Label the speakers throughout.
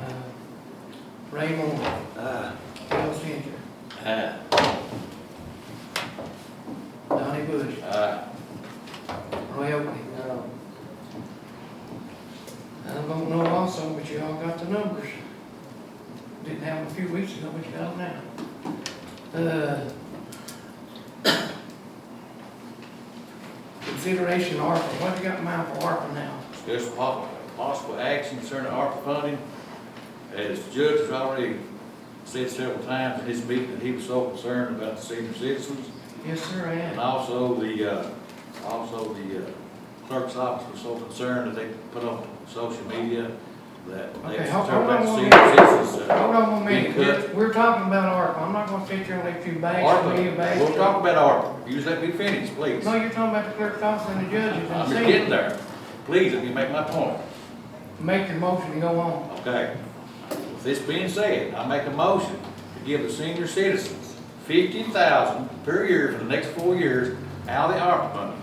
Speaker 1: Uh, Ray Moore,
Speaker 2: Aye.
Speaker 1: Bill Changer,
Speaker 2: Aye.
Speaker 1: Donnie Bush,
Speaker 2: Aye.
Speaker 1: Roy Oakley. I don't know also, but you all got the numbers. Didn't have them a few weeks ago, but you got them now. Uh, Consideration ARPA, what you got in mind for ARPA now?
Speaker 2: Discuss po- possible action concerning ARPA funding. As the judge has already said several times in his meeting, that he was so concerned about the senior citizens.
Speaker 1: Yes, sir, I
Speaker 2: And
Speaker 1: am.
Speaker 2: also the, uh, also the uh, clerk's office was so concerned that they put on social media that they
Speaker 1: Okay,
Speaker 2: was
Speaker 1: hold-
Speaker 2: concerned about
Speaker 1: hold
Speaker 2: the
Speaker 1: on
Speaker 2: senior
Speaker 1: one
Speaker 2: citizens. uh,
Speaker 1: Hold on one
Speaker 2: being
Speaker 1: minute,
Speaker 2: cut.
Speaker 1: We're- we're talking about ARPA, I'm not gonna sit here and let you bash
Speaker 2: ARPA,
Speaker 1: me, bash.
Speaker 2: we'll talk about ARPA. You just let me finish, please.
Speaker 1: No, you're talking about the clerk's office and the judges and
Speaker 2: I'm
Speaker 1: the
Speaker 2: just
Speaker 1: seat.
Speaker 2: getting there. Please, let me make my point.
Speaker 1: Make your motion and go on.
Speaker 2: Okay. With this being said, I make a motion to give the senior citizens fifty thousand per year for the next four years out of the ARPA money.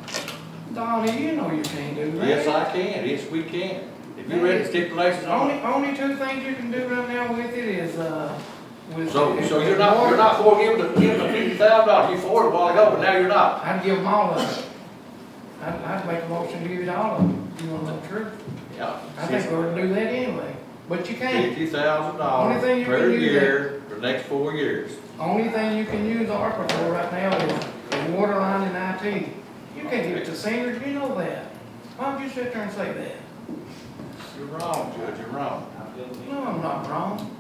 Speaker 1: Donnie, you know you can't do that.
Speaker 2: Yes, I can, yes, we can. If you read the stipulations on
Speaker 1: Only,
Speaker 2: it.
Speaker 1: only two things you can do right now with it is, uh, with.
Speaker 2: So, so you're not, you're not for giving the, giving the fifty thousand dollars, you for it a while ago, but now you're not.
Speaker 1: I'd give them all of it. I'd, I'd make a motion to give it all of them, you wanna know the truth? I think
Speaker 2: Yeah.
Speaker 1: we ought to do that anyway, but you can't.
Speaker 2: Fifty thousand
Speaker 1: Only thing
Speaker 2: dollars
Speaker 1: you
Speaker 2: per
Speaker 1: can do
Speaker 2: year for the next four years.
Speaker 1: Only thing you can use ARPA for right now is the water line and IT. You can't give it to seniors, you know that. Why don't you sit there and say that?
Speaker 2: You're wrong, Judge, you're wrong.
Speaker 1: No, I'm not wrong.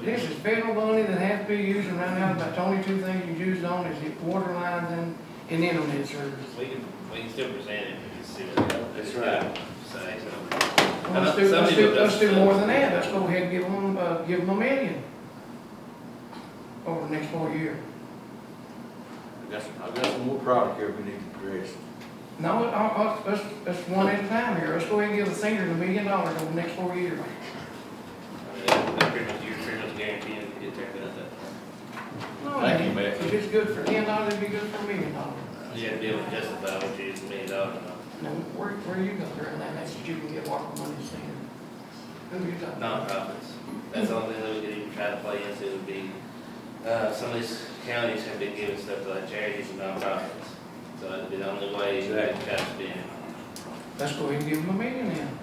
Speaker 1: This is federal money that has to be used and right now, about the only two things you use on is the water lines and, and internet service.
Speaker 3: We can, we can still present it, we can see what.
Speaker 2: That's right.
Speaker 3: Say
Speaker 1: Well, Let's do, let's do, let's do more than that, let's go ahead and give them, uh, give them a million over the next four years.
Speaker 2: I got some, I got some more product here we need to address.
Speaker 1: No, uh, I, I, let's, let's one at a time here, let's go ahead and give the seniors a million dollars over the next four years.
Speaker 3: something. That pretty much, you're pretty much guaranteeing if you get there, that, that,
Speaker 1: No,
Speaker 2: Thank you,
Speaker 1: man.
Speaker 2: Mayor.
Speaker 1: If it's good for ten dollars, it'd be good for a million dollars.
Speaker 3: you have to be able to justify what you just made out of.
Speaker 1: Now, where, where you going during that, that's what you can get ARPA money senior? Who you talking? about?
Speaker 3: Nonprofits, that's the only thing that we could even try to play into would be, uh, some of these counties have been giving stuff to like charities and nonprofits. So that'd be the only way you could try to spend it.
Speaker 1: Let's go ahead and give them a million then.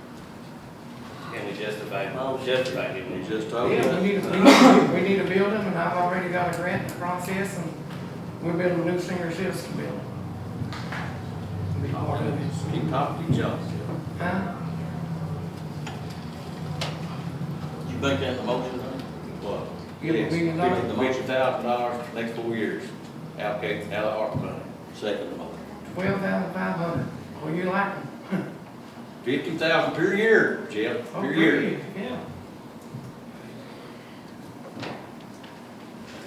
Speaker 3: Can we justify, justify giving
Speaker 2: You
Speaker 3: it?
Speaker 2: just told me.
Speaker 1: Yeah, we need, we need, we need a building, and I've already got a grant in process, and we're building a new senior citizen building. Be part of it.
Speaker 2: Keep talking, keep jumping.
Speaker 1: Huh?
Speaker 4: You think that's a motion, huh?
Speaker 2: What?
Speaker 1: Give them a million dollars?
Speaker 2: Fifty thousand dollars, next four years, allocate, out of ARPA money.
Speaker 4: Second motion.
Speaker 1: Twelve thousand five hundred, well, you like them.
Speaker 2: Fifty thousand per year, Jeff,
Speaker 1: Oh,
Speaker 2: per year.
Speaker 1: great, Yeah.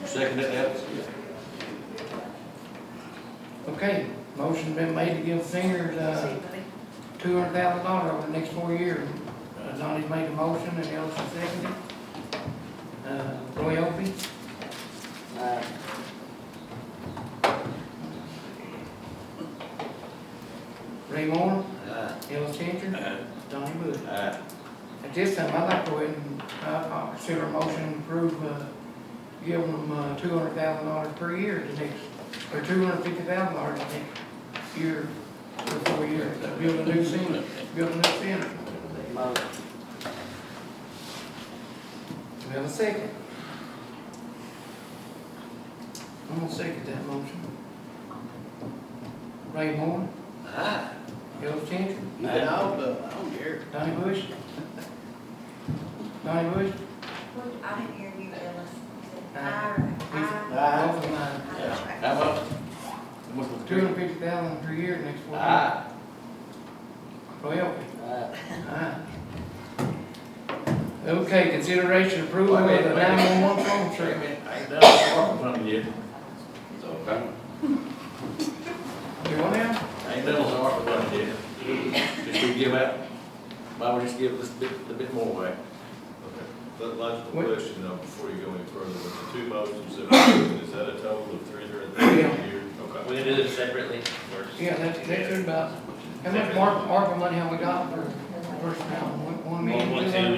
Speaker 2: Second that, that,
Speaker 1: Okay, motion been made to give seniors, uh, two hundred thousand dollars over the next four years. Uh, Donnie's made a motion and Elsie seconded. Uh, Roy Opey? Ray Moore,
Speaker 2: Aye.
Speaker 1: Ellis Changer,
Speaker 2: Aye.
Speaker 1: Donnie Bush.
Speaker 2: Aye.
Speaker 1: At this time, I'd like to go ahead and, uh, I'll consider a motion to approve, uh, give them, uh, two hundred thousand dollars per year to next, or two hundred fifty thousand dollars to next year, for four years, to build a new center, build a new center. Do we have a second? I'm gonna second that motion. Ray Moore,
Speaker 4: Aye.
Speaker 1: Bill Changer,
Speaker 4: I don't, uh, I don't care.
Speaker 1: Donnie Bush. Donnie Bush?
Speaker 5: I didn't hear you, Ellis.
Speaker 1: Aye.
Speaker 5: I,
Speaker 1: Both of mine.
Speaker 2: How much? How much was
Speaker 1: Two
Speaker 2: it?
Speaker 1: hundred fifty thousand per year next four years.
Speaker 2: Aye.
Speaker 1: Well,
Speaker 2: Ah.
Speaker 1: aye. Ah. Okay, consideration approval of
Speaker 2: Wait a
Speaker 1: the
Speaker 2: minute, wait a minute.
Speaker 1: nine-one-one phone
Speaker 2: Wait a
Speaker 1: service.
Speaker 2: minute, I ain't done the ARPA money yet.
Speaker 4: So, okay.
Speaker 1: You want that?
Speaker 2: I ain't done the ARPA money yet. Just we give out, why would just give this bit, a bit more away?
Speaker 6: That logical
Speaker 1: What-
Speaker 6: question, now, before you go any further, with the two motions that we're doing, is that a total of three hundred and thirty
Speaker 1: Yeah.
Speaker 6: a year? Okay.
Speaker 3: We can do them separately, or just-
Speaker 1: Yeah, that's, that's about, how much ARPA, ARPA money have we got for personnel? One- One million?
Speaker 3: One, one, two,
Speaker 1: two hundred?